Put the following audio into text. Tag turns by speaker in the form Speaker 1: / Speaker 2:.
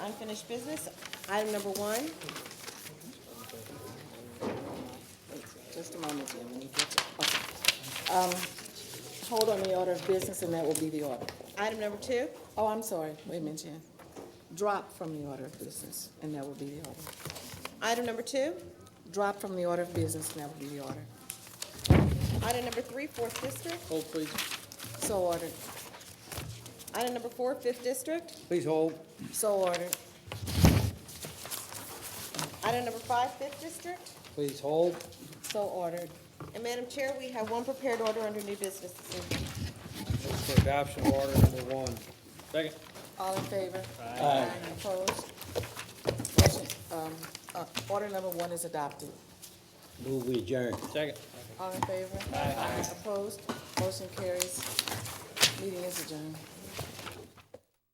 Speaker 1: unfinished business. Item number one,
Speaker 2: Just a moment, Jim, when you get to, okay. Um, Hold on the order of business, and that will be the order.
Speaker 1: item number two,
Speaker 2: Oh, I'm sorry, wait a minute, Jim. Drop from the order of business, and that will be the order.
Speaker 1: item number two,
Speaker 2: Drop from the order of business, and that will be the order.
Speaker 1: item number three, fourth district,
Speaker 3: Hold, please.
Speaker 2: So ordered,
Speaker 1: item number four, fifth district,
Speaker 3: Please hold.
Speaker 2: so ordered,
Speaker 1: item number five, fifth district.
Speaker 3: Please hold.
Speaker 2: so ordered,
Speaker 1: And Madam Chair, we have one prepared order under new business this evening.
Speaker 3: Move for adoption of order number one. Second.
Speaker 2: all in favor? Aye. Opposed? Motion, um, uh, order number one is adopted.
Speaker 3: Move we adjourn. Second.
Speaker 2: All in favor? Aye. Opposed? Motion carries. Meeting is adjourned.